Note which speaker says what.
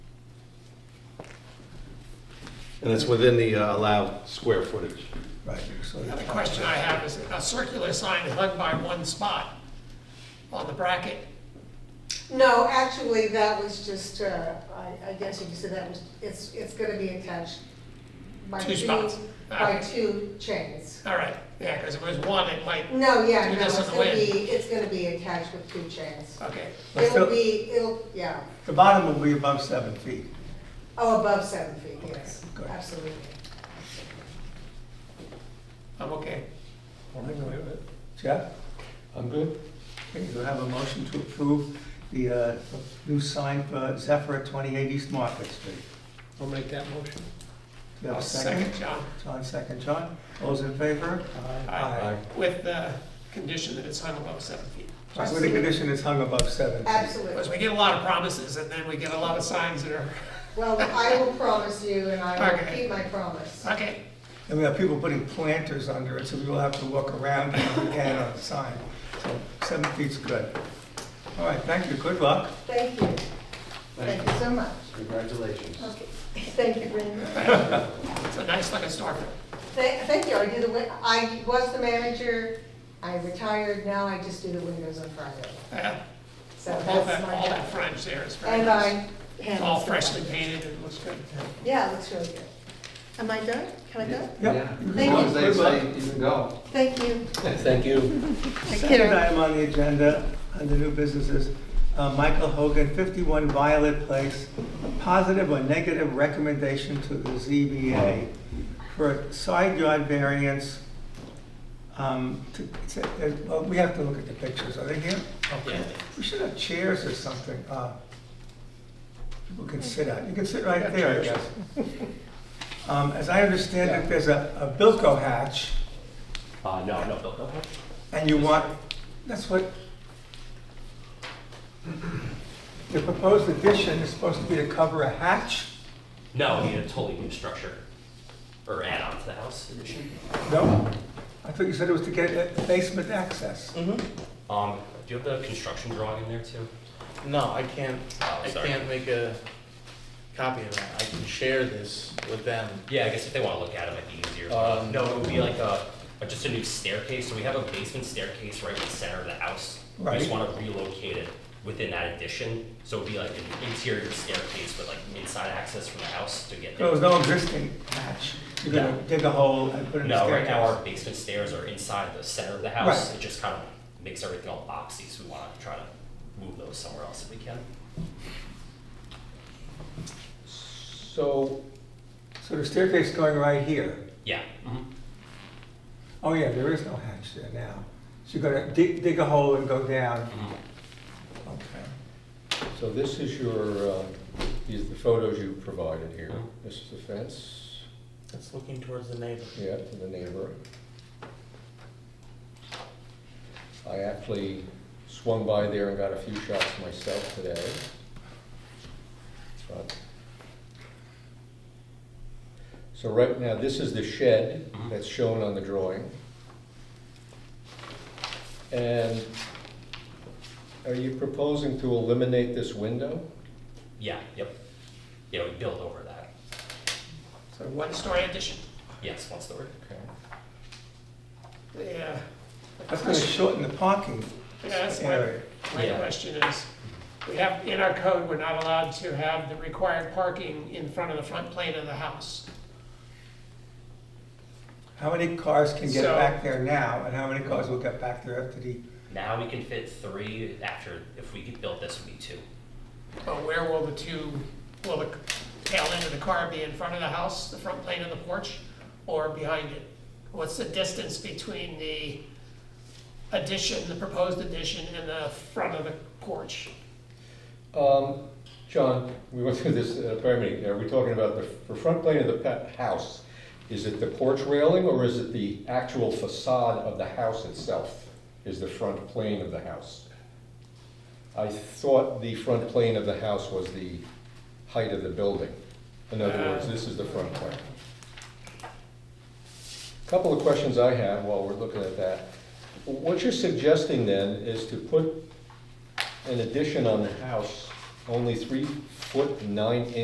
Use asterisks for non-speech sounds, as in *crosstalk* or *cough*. Speaker 1: And it's within the uh, allowed square footage.
Speaker 2: Right. so
Speaker 3: The other
Speaker 2: it's-
Speaker 3: question I have is, a circular sign is hung by one spot on the bracket.
Speaker 4: No, actually, that was just, uh, I, I guess you could say that was, it's, it's gonna be attached by
Speaker 3: Two
Speaker 4: two,
Speaker 3: spots.
Speaker 4: by
Speaker 3: Okay.
Speaker 4: two chains.
Speaker 3: All right, yeah, because if it was one, it might,
Speaker 4: No, yeah,
Speaker 3: Do
Speaker 4: no,
Speaker 3: this
Speaker 4: it's
Speaker 3: on the
Speaker 4: gonna
Speaker 3: way.
Speaker 4: be, it's gonna be attached with two chains.
Speaker 3: okay.
Speaker 2: But
Speaker 4: It'll
Speaker 2: still-
Speaker 4: be, it'll, yeah,
Speaker 2: The bottom will be above seven feet.
Speaker 4: oh, above seven feet, yes,
Speaker 2: good.
Speaker 4: absolutely.
Speaker 3: I'm okay.
Speaker 2: Jeff,
Speaker 5: I'm good.
Speaker 2: okay, you have a motion to approve the uh, new sign for Zephyr at 28 East Market Street.
Speaker 6: I'll make that motion.
Speaker 2: Do you have a
Speaker 3: Second,
Speaker 2: second?
Speaker 3: John,
Speaker 2: John, second. John, all's in favor?
Speaker 3: Aye. with the condition that it's hung above seven feet.
Speaker 2: Right, With the condition it's hung above seven. feet.
Speaker 3: Because
Speaker 4: Absolutely.
Speaker 3: we get a lot of promises, and then we get a lot of signs that are,
Speaker 4: Well, I will promise you, and I will
Speaker 3: Okay.
Speaker 4: keep my promise.
Speaker 3: okay,
Speaker 2: And we have people putting planters under it, so we will have to walk around if we can on the sign. So seven feet's good. All right, thank you, good luck.
Speaker 4: Thank you. Thank you so much.
Speaker 1: Congratulations.
Speaker 4: Okay, *laughs* thank you very much.
Speaker 3: it's a nice looking storefront.
Speaker 4: Thank thank you, I do the, win- I was the manager, I retired, now I just do the windows on Friday.
Speaker 3: Yeah,
Speaker 4: So
Speaker 3: All
Speaker 4: that's
Speaker 3: that, all
Speaker 4: my
Speaker 3: that
Speaker 4: job.
Speaker 3: French there is very
Speaker 4: And
Speaker 3: nice.
Speaker 4: I.
Speaker 3: It's
Speaker 4: handle
Speaker 3: all
Speaker 4: stuff.
Speaker 3: freshly painted, it looks good.
Speaker 4: Yeah, it looks really good. Am I done? Can I go?
Speaker 2: Yep.
Speaker 5: Yeah.
Speaker 4: Thank
Speaker 5: As long as
Speaker 4: you.
Speaker 5: they say you can go.
Speaker 4: Thank you. *laughs*
Speaker 5: Thank you.
Speaker 2: Second item on the agenda, under new businesses, uh, Michael Hogan, 51 Violet Place, positive or negative recommendation to the ZBA for a side yard variance. um, to- it's a- it- well, We have to look at the pictures, are they here? Okay. We should have chairs or something. uh, People can sit out, you can sit right there, I guess. Um, As I understand it, there's a a Bilko hatch.
Speaker 7: Uh, no, no, Bill, no.
Speaker 2: And you want, that's what, the proposed addition is supposed to be to cover a hatch?
Speaker 7: No, I mean, a totally new structure or add on to the house addition.
Speaker 2: No? I thought you said it was to get a basement access.
Speaker 7: Um, do you have the construction drawing in there too?
Speaker 8: No, I can't,
Speaker 7: Oh,
Speaker 8: I
Speaker 7: sorry.
Speaker 8: can't make a copy of that. I can share this with them.
Speaker 7: Yeah, I guess if they want to look at it, it might be easier.
Speaker 8: Um,
Speaker 7: no, it would be like a, a- just a new staircase. So we have a basement staircase right in the center of the house. We
Speaker 2: Right.
Speaker 7: just want to relocate it within that addition. So it'd be like an interior staircase with like inside access from the house to get
Speaker 2: There
Speaker 7: there.
Speaker 2: was no existing hatch. You're gonna
Speaker 7: No.
Speaker 2: dig a hole and put in a
Speaker 7: No, right now our
Speaker 2: staircase.
Speaker 7: basement stairs are inside the center of the house.
Speaker 2: Right.
Speaker 7: It just kind of makes everything all boxy. So we want to try to move those somewhere else if we can.
Speaker 8: So,
Speaker 2: So the staircase is going right here.
Speaker 7: Yeah.
Speaker 2: Oh yeah, there is no hatch there now. So you're gonna dig, dig a hole and go down.
Speaker 7: Mhm.
Speaker 2: Okay.
Speaker 5: So this is your, uh, these are the photos you provided here.
Speaker 7: Mhm.
Speaker 5: This is the fence,
Speaker 8: it's looking towards the neighbor.
Speaker 5: yeah, to the neighbor. I actually swung by there and got a few shots myself today. But- So right now, this is the shed that's shown on the drawing. And are you proposing to eliminate this window?
Speaker 7: Yeah, yep. Yeah, we build over that.
Speaker 3: So one story addition.
Speaker 7: Yes, one story.
Speaker 5: Okay.
Speaker 3: Yeah,
Speaker 2: That's gonna shorten the parking
Speaker 3: yeah, that's my
Speaker 2: area.
Speaker 3: My
Speaker 7: Yeah.
Speaker 3: question is, we have, in our code, we're not allowed to have the required parking in front of the front plane of the house.
Speaker 2: How many cars can get
Speaker 3: So-
Speaker 2: back there now, and how many cars will get back there after the,
Speaker 7: Now we can fit three after, if we could build this, would be two.
Speaker 3: But where will the two, will the tail end of the car be in front of the house, the front plane of the porch, or behind it? What's the distance between the addition, the proposed addition, and the front of the porch?
Speaker 5: Um, John, we went through this uh, prayer meeting, are we talking about the, the front plane of the pet house? Is it the porch railing or is it the actual facade of the house itself is the front plane of the house? I thought the front plane of the house was the height of the building. In other words, this is the front plane. Couple of questions I have while we're looking at that. What you're suggesting then is to put an addition on the house, only three foot nine inches.